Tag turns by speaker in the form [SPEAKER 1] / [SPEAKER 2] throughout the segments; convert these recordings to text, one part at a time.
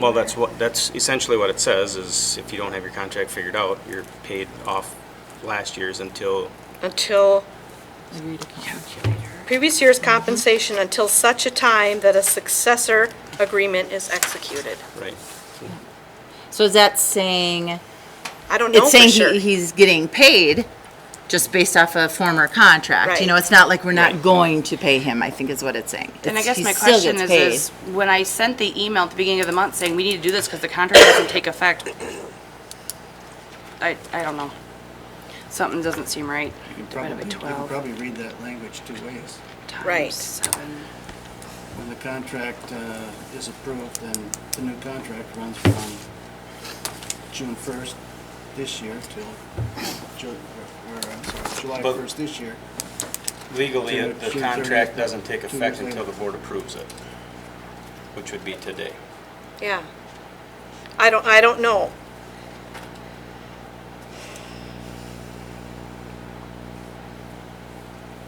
[SPEAKER 1] Well, that's what, that's essentially what it says, is if you don't have your contract figured out, you're paid off last year's until,
[SPEAKER 2] until
[SPEAKER 3] Read a calculator.
[SPEAKER 2] previous year's compensation until such a time that a successor agreement is executed.
[SPEAKER 1] right?
[SPEAKER 3] So is that saying,
[SPEAKER 2] I don't know
[SPEAKER 3] it's
[SPEAKER 2] for
[SPEAKER 3] saying
[SPEAKER 2] sure.
[SPEAKER 3] he, he's getting paid just based off a former contract? You know,
[SPEAKER 2] Right.
[SPEAKER 3] it's not like we're not
[SPEAKER 1] Right.
[SPEAKER 3] going to pay him, I think is what it's saying.
[SPEAKER 4] And I
[SPEAKER 3] It's-
[SPEAKER 4] guess
[SPEAKER 3] he
[SPEAKER 4] my
[SPEAKER 3] still
[SPEAKER 4] question is,
[SPEAKER 3] gets
[SPEAKER 4] is when I sent the email at the beginning of the month saying we need to do this because the contract doesn't take effect, I, I don't know. Something doesn't seem right.
[SPEAKER 5] You can
[SPEAKER 4] Divided
[SPEAKER 5] probably,
[SPEAKER 4] by
[SPEAKER 5] you can
[SPEAKER 4] 12
[SPEAKER 5] probably read that language two ways.
[SPEAKER 2] Right.
[SPEAKER 4] times seven.
[SPEAKER 5] When the contract uh, is approved, then the new contract runs from June 1st this year till, Ju- or, or, I'm sorry, July
[SPEAKER 1] But-
[SPEAKER 5] 1st this year.
[SPEAKER 1] Legally, uh,
[SPEAKER 5] June-
[SPEAKER 1] the
[SPEAKER 5] June
[SPEAKER 1] contract
[SPEAKER 5] 30th,
[SPEAKER 1] doesn't take
[SPEAKER 5] two years
[SPEAKER 1] effect until
[SPEAKER 5] later.
[SPEAKER 1] the board approves it, which would be today.
[SPEAKER 2] Yeah. I don't, I don't know.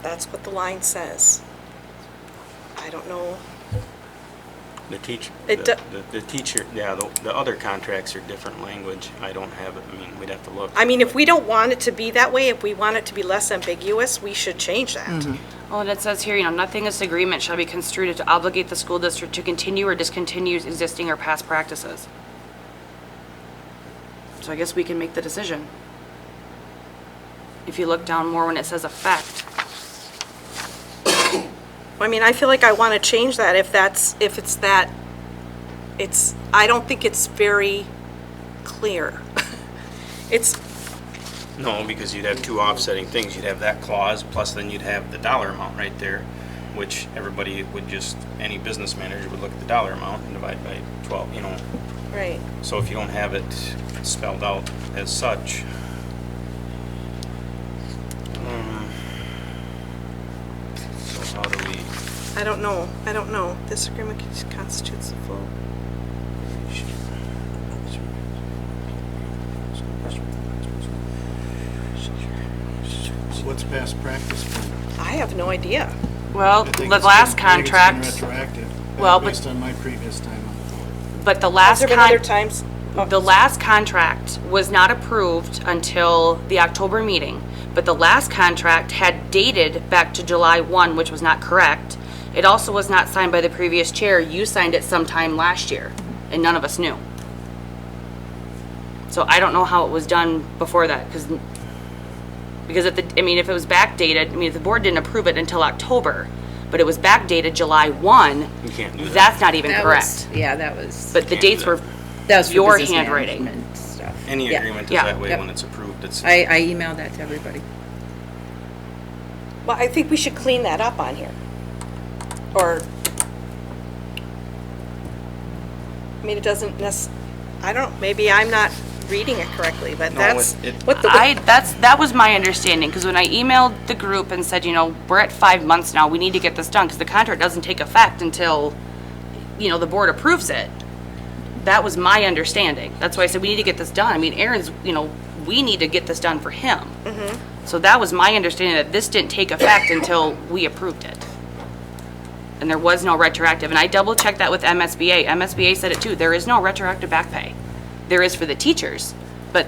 [SPEAKER 2] That's what the line says. I don't know.
[SPEAKER 1] The teacher,
[SPEAKER 2] It
[SPEAKER 1] the,
[SPEAKER 2] do-
[SPEAKER 1] the- the teacher, yeah, the, the other contracts are different language. I don't have it, I mean, we'd have to look.
[SPEAKER 2] I mean, if we don't want it to be that way, if we want it to be less ambiguous, we should change
[SPEAKER 3] Mm.
[SPEAKER 2] that.
[SPEAKER 4] Well, and it says here, you know, nothing in this agreement shall be construed to obligate the school district to continue or discontinue existing or past practices. So I guess we can make the decision. If you look down more when it says effect.
[SPEAKER 2] I mean, I feel like I want to change that if that's, if it's that, it's, I don't think it's very clear. It's,
[SPEAKER 1] No, because you'd have two offsetting things. You'd have that clause, plus then you'd have the dollar amount right there, which everybody would just, any business manager would look at the dollar amount and divide by twelve, you know.
[SPEAKER 2] right.
[SPEAKER 1] So if you don't have it spelled out as such, um, so how do we?
[SPEAKER 2] I don't know. I don't know. This agreement constitutes the full.
[SPEAKER 5] What's past practice? for-
[SPEAKER 2] I have no idea.
[SPEAKER 4] Well,
[SPEAKER 5] I think
[SPEAKER 4] the
[SPEAKER 5] it's been-
[SPEAKER 4] last
[SPEAKER 5] I think it's been
[SPEAKER 4] contract,
[SPEAKER 5] Retroactive,
[SPEAKER 4] Well,
[SPEAKER 5] uh,
[SPEAKER 4] but-
[SPEAKER 5] based on my previous time on the board.
[SPEAKER 4] but the
[SPEAKER 2] Has
[SPEAKER 4] last
[SPEAKER 2] there been other
[SPEAKER 4] contract.
[SPEAKER 2] times?
[SPEAKER 4] The last contract was not approved until the October meeting, but the last contract had dated back to July 1, which was not correct. It also was not signed by the previous chair. You signed it sometime last year, and none of us knew. So I don't know how it was done before that, because, because if the, I mean, if it was backdated, I mean, if the board didn't approve it until October, but it was backdated July 1.
[SPEAKER 1] You can't do that.
[SPEAKER 4] That's not even
[SPEAKER 3] That was-
[SPEAKER 4] correct.
[SPEAKER 3] Yeah, that was,
[SPEAKER 4] But the
[SPEAKER 1] Can't do
[SPEAKER 4] dates were,
[SPEAKER 1] that.
[SPEAKER 3] that was for
[SPEAKER 4] your
[SPEAKER 3] business
[SPEAKER 4] handwriting.
[SPEAKER 3] management stuff.
[SPEAKER 1] Any
[SPEAKER 3] Yeah.
[SPEAKER 1] agreement is
[SPEAKER 4] yeah,
[SPEAKER 1] that way
[SPEAKER 3] yep.
[SPEAKER 1] when it's approved, it's.
[SPEAKER 3] I, I emailed that to everybody.
[SPEAKER 2] Oh, Well, I think we should clean that up on here. Or, I mean, it doesn't necess, I don't, maybe I'm not reading it correctly, but
[SPEAKER 1] No,
[SPEAKER 2] that's
[SPEAKER 1] it- it-
[SPEAKER 2] what the.
[SPEAKER 4] I, that's, that was my understanding, because when I emailed the group and said, you know, we're at five months now, we need to get this done, because the contract doesn't take effect until, you know, the board approves it. That was my understanding. That's why I said, we need to get this done. I mean, Aaron's, you know, we need to get this done for him.
[SPEAKER 3] Mm-hmm.
[SPEAKER 4] So that was my understanding, that this didn't take effect until we approved it. And there was no retroactive, and I double-checked that with MSBA. MSBA said it too, there is no retroactive back pay. There is for the teachers, but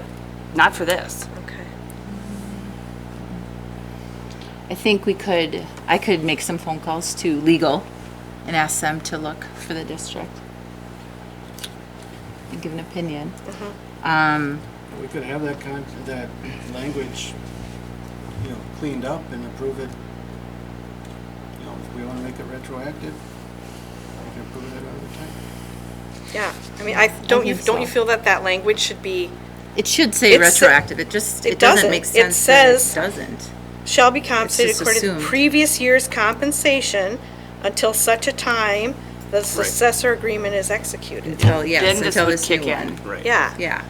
[SPEAKER 4] not for this.
[SPEAKER 2] Okay.
[SPEAKER 3] I think we could, I could make some phone calls to legal and ask them to look for the district and give an opinion.
[SPEAKER 4] Mm-hmm.
[SPEAKER 3] Um,
[SPEAKER 5] We could have that con, that language, you know, cleaned up and approve it. You know, if we wanna make it retroactive, we can approve it at another time.
[SPEAKER 2] Yeah, I mean, I, don't you,
[SPEAKER 3] think
[SPEAKER 2] don't you
[SPEAKER 3] so.
[SPEAKER 2] feel that that language should be,
[SPEAKER 3] It should say
[SPEAKER 2] It's-
[SPEAKER 3] retroactive, it just,
[SPEAKER 2] it
[SPEAKER 3] it doesn't
[SPEAKER 2] doesn't.
[SPEAKER 3] make
[SPEAKER 2] It
[SPEAKER 3] sense that
[SPEAKER 2] says-
[SPEAKER 3] it doesn't.
[SPEAKER 2] shall be compensated
[SPEAKER 3] just
[SPEAKER 2] according to
[SPEAKER 3] assumed.
[SPEAKER 2] previous year's compensation until such a time the successor agreement is executed?
[SPEAKER 3] Until, yes,
[SPEAKER 4] Then this
[SPEAKER 3] until
[SPEAKER 4] would
[SPEAKER 3] this new
[SPEAKER 4] kick in.
[SPEAKER 3] one.
[SPEAKER 1] Right.
[SPEAKER 2] Yeah.
[SPEAKER 3] Yeah.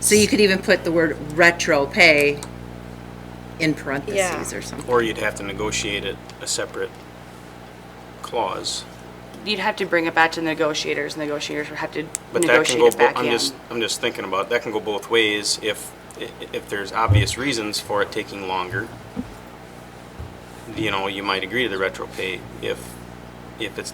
[SPEAKER 3] So you could even put the word retro pay in parentheses
[SPEAKER 2] Yeah.
[SPEAKER 3] or something.
[SPEAKER 1] Or you'd have to negotiate it a separate clause.
[SPEAKER 4] You'd have to bring it back to the negotiators, negotiators would have to
[SPEAKER 1] But that can
[SPEAKER 4] negotiate
[SPEAKER 1] go,
[SPEAKER 4] it
[SPEAKER 1] bo-
[SPEAKER 4] back
[SPEAKER 1] I'm
[SPEAKER 4] in.
[SPEAKER 1] just, I'm just thinking about, that can go both ways if, i- if there's obvious reasons for it taking longer. You know, you might agree to the retro pay if, if it's